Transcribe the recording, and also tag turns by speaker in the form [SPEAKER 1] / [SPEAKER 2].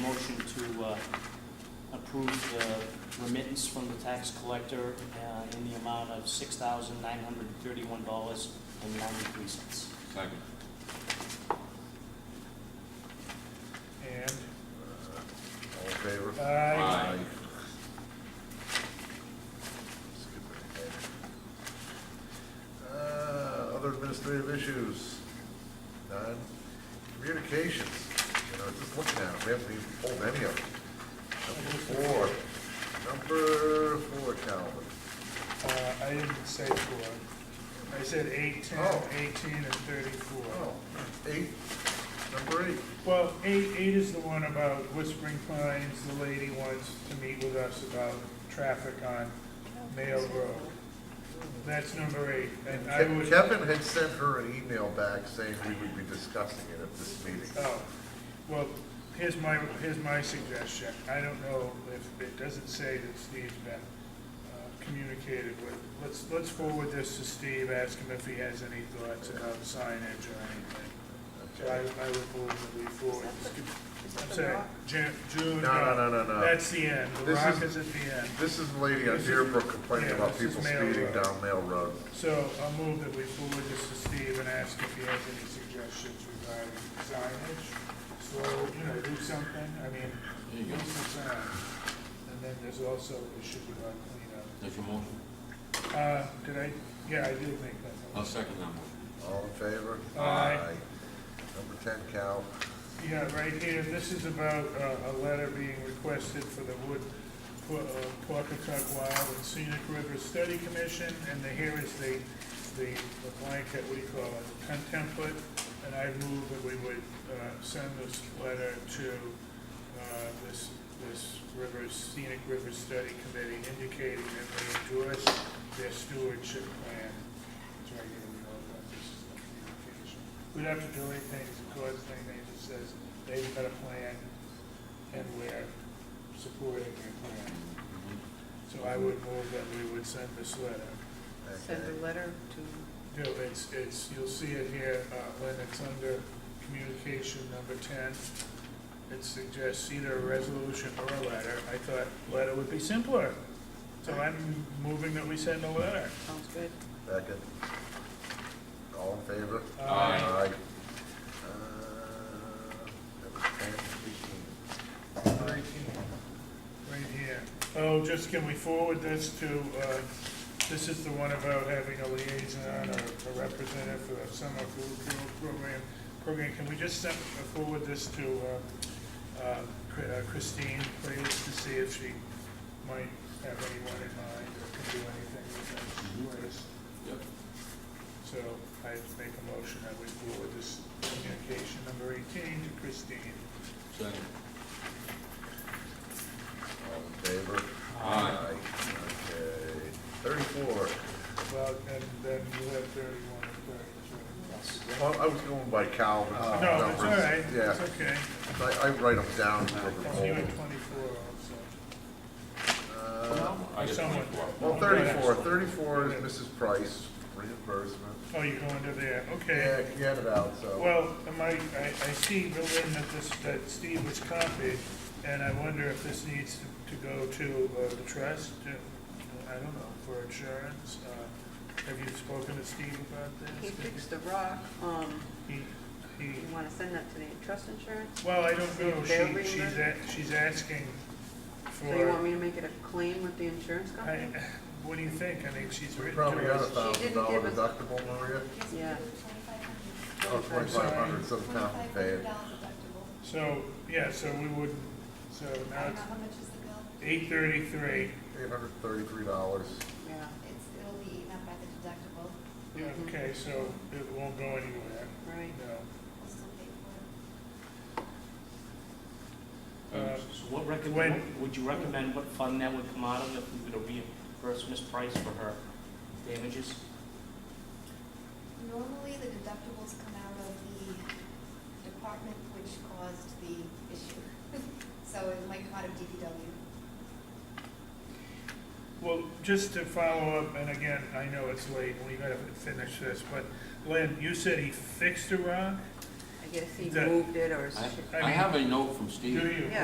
[SPEAKER 1] motion to uh, approve the remittance from the tax collector uh, in the amount of $6,931.93.
[SPEAKER 2] Second.
[SPEAKER 3] And,
[SPEAKER 4] All in favor?
[SPEAKER 3] aye.
[SPEAKER 2] Aye.
[SPEAKER 4] Skip ahead. Uh, Other administrative issues? None. Communications, you know, just looking at them, we haven't even pulled any of them. Number four, number four, Calvin.
[SPEAKER 3] Uh, I didn't say four. I said eight, ten,
[SPEAKER 4] Oh.
[SPEAKER 3] eighteen, and thirty-four.
[SPEAKER 4] Oh, eight, number eight.
[SPEAKER 3] Well, eight, eight is the one about Whispering Pines, the lady wants to meet with us about traffic on Mayo Road. That's number eight, and I
[SPEAKER 4] Ke-
[SPEAKER 3] would.
[SPEAKER 4] Kevin had sent her an email back saying we would be discussing it at this meeting.
[SPEAKER 3] Oh, well, here's my, here's my suggestion. I don't know if, it doesn't say that Steve's been uh, communicated with. Let's, let's forward this to Steve, ask him if he has any thoughts about signage or anything. So I,
[SPEAKER 4] Okay.
[SPEAKER 3] I would move that we forward. this con-
[SPEAKER 5] Is that
[SPEAKER 3] I'm
[SPEAKER 5] the
[SPEAKER 3] sorry,
[SPEAKER 5] rock?
[SPEAKER 3] Jan, June.
[SPEAKER 4] No, no, no, no, no.
[SPEAKER 3] That's the end. The
[SPEAKER 4] This
[SPEAKER 3] rock
[SPEAKER 4] is-
[SPEAKER 3] is at the end.
[SPEAKER 4] This is the lady on
[SPEAKER 3] This is-
[SPEAKER 4] Deerbrook complaining
[SPEAKER 3] yeah,
[SPEAKER 4] about
[SPEAKER 3] this is
[SPEAKER 4] people
[SPEAKER 3] Mail
[SPEAKER 4] speeding
[SPEAKER 3] Road.
[SPEAKER 4] down Mail Road.
[SPEAKER 3] So I'll move that we forward this to Steve and ask if he has any suggestions regarding signage. So, you know, do something, I mean,
[SPEAKER 2] There you go.
[SPEAKER 3] use the sign. And then there's also issue about cleanup.
[SPEAKER 2] That's your motion?
[SPEAKER 3] Uh, did I, yeah, I did make that.
[SPEAKER 2] I'll
[SPEAKER 3] motion.
[SPEAKER 2] second that motion.
[SPEAKER 4] All in favor?
[SPEAKER 3] Aye.
[SPEAKER 4] Number ten, Cal.
[SPEAKER 3] Yeah, right here, this is about uh, a letter being requested for the Wood, for uh, Pawcatuck Wild and Scenic River Study Commission, and the, here is the, the the blanket, what do you call it, Tem- template, and I move that we would uh, send this letter to uh, this, this river, Scenic River Study Committee indicating that we endorse their stewardship plan. It's right here, we all got this is the communication. We'd have to do anything, it's a cause thing, they just says, they've got a plan, and we're supporting their plan.
[SPEAKER 2] Mm-hmm.
[SPEAKER 3] So I would move that we would send this letter.
[SPEAKER 5] Send
[SPEAKER 4] Okay.
[SPEAKER 5] a letter to,
[SPEAKER 3] No, it's, it's, you'll see it here, uh, when it's under communication number ten. It suggests either a resolution or a letter. I thought letter would be simpler. So I'm moving that we send a letter.
[SPEAKER 5] sounds good.
[SPEAKER 4] Second. All in favor?
[SPEAKER 3] Aye.
[SPEAKER 2] Aye.
[SPEAKER 4] Uh, Number ten, fifteen.
[SPEAKER 3] Right here. Oh, just can we forward this to, uh, this is the one about having a liaison or a representative for the summer food pro- program. Program, can we just send, forward this to uh, uh, Chr- uh, Christine, please, to see if she might have anyone in mind or can do anything with that? list?
[SPEAKER 2] Yep.
[SPEAKER 3] So I make a motion that we forward this communication number eighteen to Christine.
[SPEAKER 2] Second.
[SPEAKER 4] All in favor?
[SPEAKER 2] Aye.
[SPEAKER 4] Okay. Thirty-four.
[SPEAKER 3] Well, and then you have thirty-one and thirty-two.
[SPEAKER 4] Well, I was going by Calvin's numbers.
[SPEAKER 3] No, Oh, that's all right,
[SPEAKER 4] Uh, Yeah,
[SPEAKER 3] it's okay.
[SPEAKER 4] I, I write them down for the
[SPEAKER 3] Because you
[SPEAKER 4] poll.
[SPEAKER 3] had twenty-four also.
[SPEAKER 4] Uh,
[SPEAKER 2] I get
[SPEAKER 3] Someone-
[SPEAKER 2] twenty-four.
[SPEAKER 4] Well, thirty-four, thirty-four is Mrs. Price reimbursement.
[SPEAKER 3] Oh, you're going to there,
[SPEAKER 4] Yeah,
[SPEAKER 3] okay.
[SPEAKER 4] you had it out, so.
[SPEAKER 3] Well, am I, I, I see, Berlin, that this, that Steve was copied, and I wonder if this needs to to go to uh, the trust, to- I don't know, for insurance. Uh, Have you spoken to Steve about
[SPEAKER 5] He
[SPEAKER 3] this?
[SPEAKER 5] fixed the rock, um,
[SPEAKER 3] He, he,
[SPEAKER 5] you wanna send that to the trust insurance?
[SPEAKER 3] well, I don't know,
[SPEAKER 5] They're
[SPEAKER 3] she, she's, a- she's asking for.
[SPEAKER 5] So you want me to make it a claim with the insurance
[SPEAKER 3] I,
[SPEAKER 5] company?
[SPEAKER 3] what do you think? I mean, she's
[SPEAKER 4] We
[SPEAKER 3] written
[SPEAKER 4] probably
[SPEAKER 3] to
[SPEAKER 4] got a
[SPEAKER 3] us.
[SPEAKER 5] She
[SPEAKER 4] thousand
[SPEAKER 5] didn't
[SPEAKER 4] dollar
[SPEAKER 5] give
[SPEAKER 4] deductible, Maria.
[SPEAKER 5] Yeah.
[SPEAKER 4] Oh, twenty-five hundred, so the town can pay it.
[SPEAKER 6] deductible.
[SPEAKER 3] So, yeah, so we would, so now it's
[SPEAKER 6] How much is the bill?
[SPEAKER 3] eight thirty-three.
[SPEAKER 4] Eight hundred thirty-three dollars.
[SPEAKER 5] Yeah,
[SPEAKER 6] It's, it'll be eaten up by the deductible,
[SPEAKER 5] Mhm.
[SPEAKER 3] Okay, so it won't go anywhere,
[SPEAKER 5] right.
[SPEAKER 3] no.
[SPEAKER 6] we'll still pay for
[SPEAKER 3] Uh,
[SPEAKER 6] it.
[SPEAKER 1] So what recommend,
[SPEAKER 3] When-
[SPEAKER 1] would you recommend what fund that would come out of if we were to reimburse Ms. Price for her damages?
[SPEAKER 6] Normally, the deductibles come out of the department which caused the issue. So it might come out of DPW.
[SPEAKER 3] Well, just to follow up, and again, I know it's late, and we gotta finish this, but Lynn, you said he fixed a rock?
[SPEAKER 5] I guess he
[SPEAKER 3] That-
[SPEAKER 5] moved it or.
[SPEAKER 2] I-
[SPEAKER 5] sh-
[SPEAKER 3] I
[SPEAKER 2] I
[SPEAKER 3] mean-
[SPEAKER 2] have a note from
[SPEAKER 3] Do
[SPEAKER 2] Steve.
[SPEAKER 3] you?
[SPEAKER 5] Yeah,